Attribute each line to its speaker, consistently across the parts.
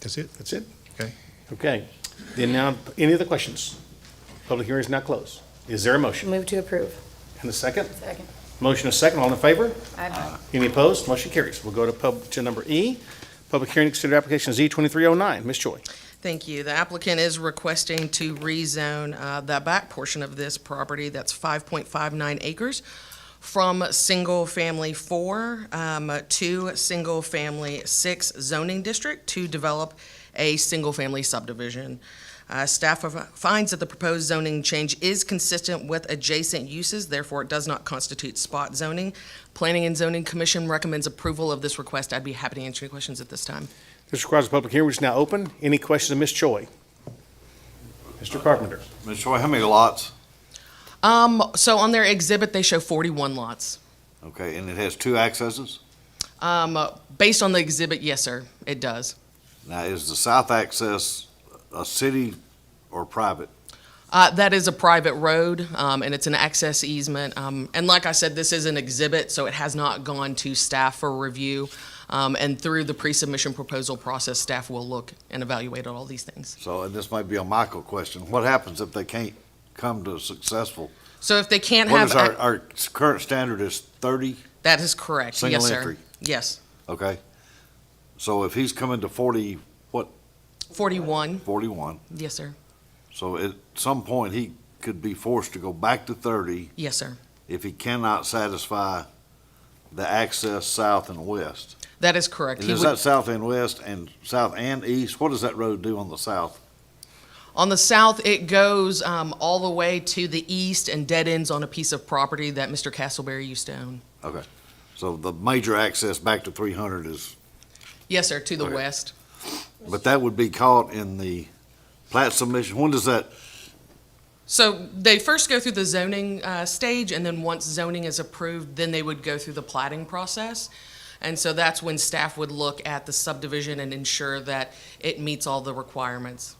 Speaker 1: That's it? That's it? Okay.
Speaker 2: Okay. Then now, any other questions? Public hearing is now closed. Is there a motion?
Speaker 3: Move to approve.
Speaker 2: And a second?
Speaker 3: Second.
Speaker 2: Motion a second. All in favor?
Speaker 3: Aye.
Speaker 2: Any opposed? Motion carries. We'll go to pub, to number E, public hearing, to consider application Z2309. Ms. Choi.
Speaker 4: Thank you. The applicant is requesting to rezone uh, the back portion of this property, that's 5.59 acres, from single-family four um, to single-family six zoning district to develop a single-family subdivision. Uh, Staff of- finds that the proposed zoning change is consistent with adjacent uses, therefore it does not constitute spot zoning. Planning and Zoning Commission recommends approval of this request. I'd be happy to answer any questions at this time.
Speaker 2: This requires a public hearing, which is now open. Any questions of Ms. Choi? Mr. Carpenter.
Speaker 5: Ms. Choi, how many lots?
Speaker 4: Um, so on their exhibit, they show 41 lots.
Speaker 5: Okay, and it has two accesses?
Speaker 4: Um, uh, based on the exhibit, yes, sir, it does.
Speaker 5: Now, is the south access a city or private?
Speaker 4: Uh, that is a private road, um, and it's an access easement. Um, and like I said, this is an exhibit, so it has not gone to staff for review. Um, and through the pre-submission proposal process, staff will look and evaluate all these things.
Speaker 5: So, and this might be a Michael question, what happens if they can't come to a successful?
Speaker 4: So if they can't
Speaker 5: What
Speaker 4: have,
Speaker 5: is our, uh, our current standard is thirty,
Speaker 4: that is correct.
Speaker 5: Single
Speaker 4: yes, sir.
Speaker 5: entry.
Speaker 4: Yes,
Speaker 5: okay? So if he's coming to forty,
Speaker 4: 41.
Speaker 5: forty-one,
Speaker 4: Yes, sir.
Speaker 5: so at some point, he could be forced to go back to thirty
Speaker 4: Yes, sir.
Speaker 5: if he cannot satisfy the access south and west.
Speaker 4: That is correct.
Speaker 5: And
Speaker 4: He
Speaker 5: is
Speaker 4: would-
Speaker 5: that south and west and south and east? What does that road do on the south?
Speaker 4: On the south, it goes um, all the way to the east and dead ends on a piece of property that Mr. Castleberry used to own.
Speaker 5: Okay, so the major access back to three hundred is,
Speaker 4: Yes, sir, to the
Speaker 5: Okay.
Speaker 4: west.
Speaker 5: but that would be caught in the plat submission. When does that,
Speaker 4: So they first go through the zoning uh, stage, and then once zoning is approved, then they would go through the plating process. And so that's when staff would look at the subdivision and ensure that it meets all the requirements.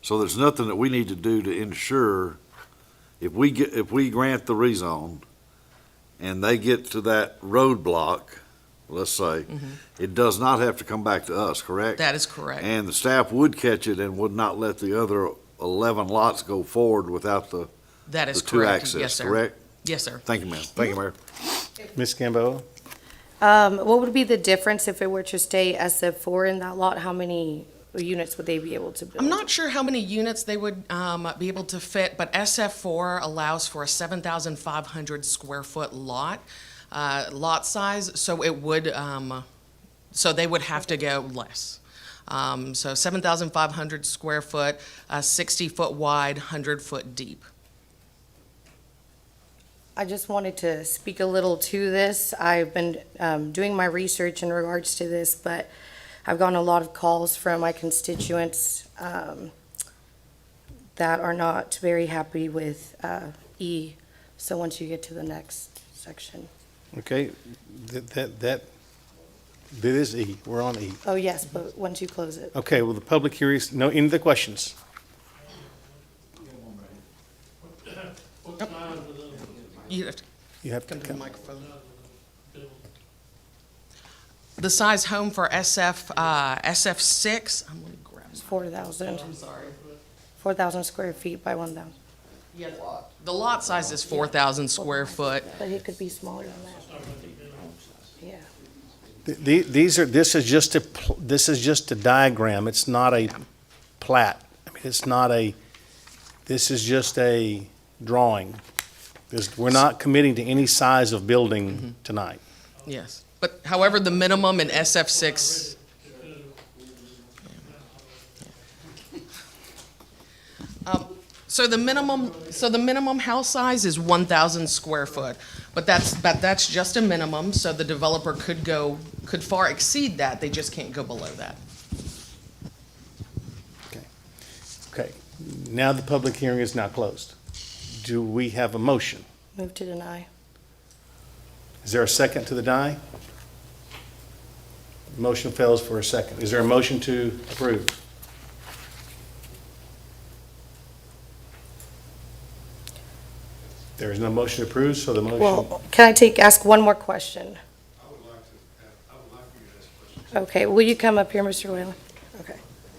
Speaker 5: so there's nothing that we need to do to ensure if we get, if we grant the rezone and they get to that roadblock, let's say, it does not have to come back to us, correct?
Speaker 4: Mm-hmm. That is correct.
Speaker 5: And the staff would catch it and would not let the other eleven lots go forward without the,
Speaker 4: That
Speaker 5: the
Speaker 4: is
Speaker 5: two
Speaker 4: correct.
Speaker 5: access,
Speaker 4: Yes, sir.
Speaker 5: correct?
Speaker 4: Yes, sir.
Speaker 5: Thank you, ma'am. Thank you, Mayor.
Speaker 2: Ms. Gamboa.
Speaker 3: Um, what would be the difference if it were to stay SF four in that lot? How many units would they be able to build?
Speaker 4: I'm not sure how many units they would um, be able to fit, but SF4 allows for a 7,500 square foot lot, uh, lot size, so it would, um, so they would have to go less. Um, So 7,500 square foot, 60-foot wide, 100-foot deep.
Speaker 3: I just wanted to speak a little to this. I've been um, doing my research in regards to this, but I've gotten a lot of calls from my constituents um, that are not very happy with uh, E. So once you get to the next section.
Speaker 2: Okay, that, that, that that is E. We're on E.
Speaker 3: Oh, yes, but once you close it.
Speaker 2: Okay, well, the public hearing, is- no, any other questions?
Speaker 4: You have to
Speaker 2: You have to
Speaker 4: come to the
Speaker 2: come.
Speaker 4: microphone. The size home for SF, uh, SF6, I'm gonna grab,
Speaker 3: Four thousand,
Speaker 4: I'm sorry.
Speaker 3: four thousand square feet by one thousand,
Speaker 4: Yeah, the lot size is four thousand square foot.
Speaker 3: but it could be smaller than that. Yeah,
Speaker 2: Th- the- These are, this is just a, pl- this is just a diagram. It's not a plat. I mean, it's not a, this is just a drawing. This, we're not committing to any size of building tonight.
Speaker 4: Yes, but however, the minimum in SF six. Um, So the minimum, so the minimum house size is one thousand square foot, but that's, but that's just a minimum, so the developer could go, could far exceed that, they just can't go below that.
Speaker 2: Okay, now the public hearing is now closed. Do we have a motion?
Speaker 3: move to deny.
Speaker 2: Is there a second to the die? Motion fails for a second. Is there a motion to approve? There is no motion to approve, so the motion,
Speaker 3: Well, can I take, ask one more question?
Speaker 6: I would like to, have- I would like for you to ask questions.
Speaker 3: Okay, will you come up here, Mr. Whalen? Okay.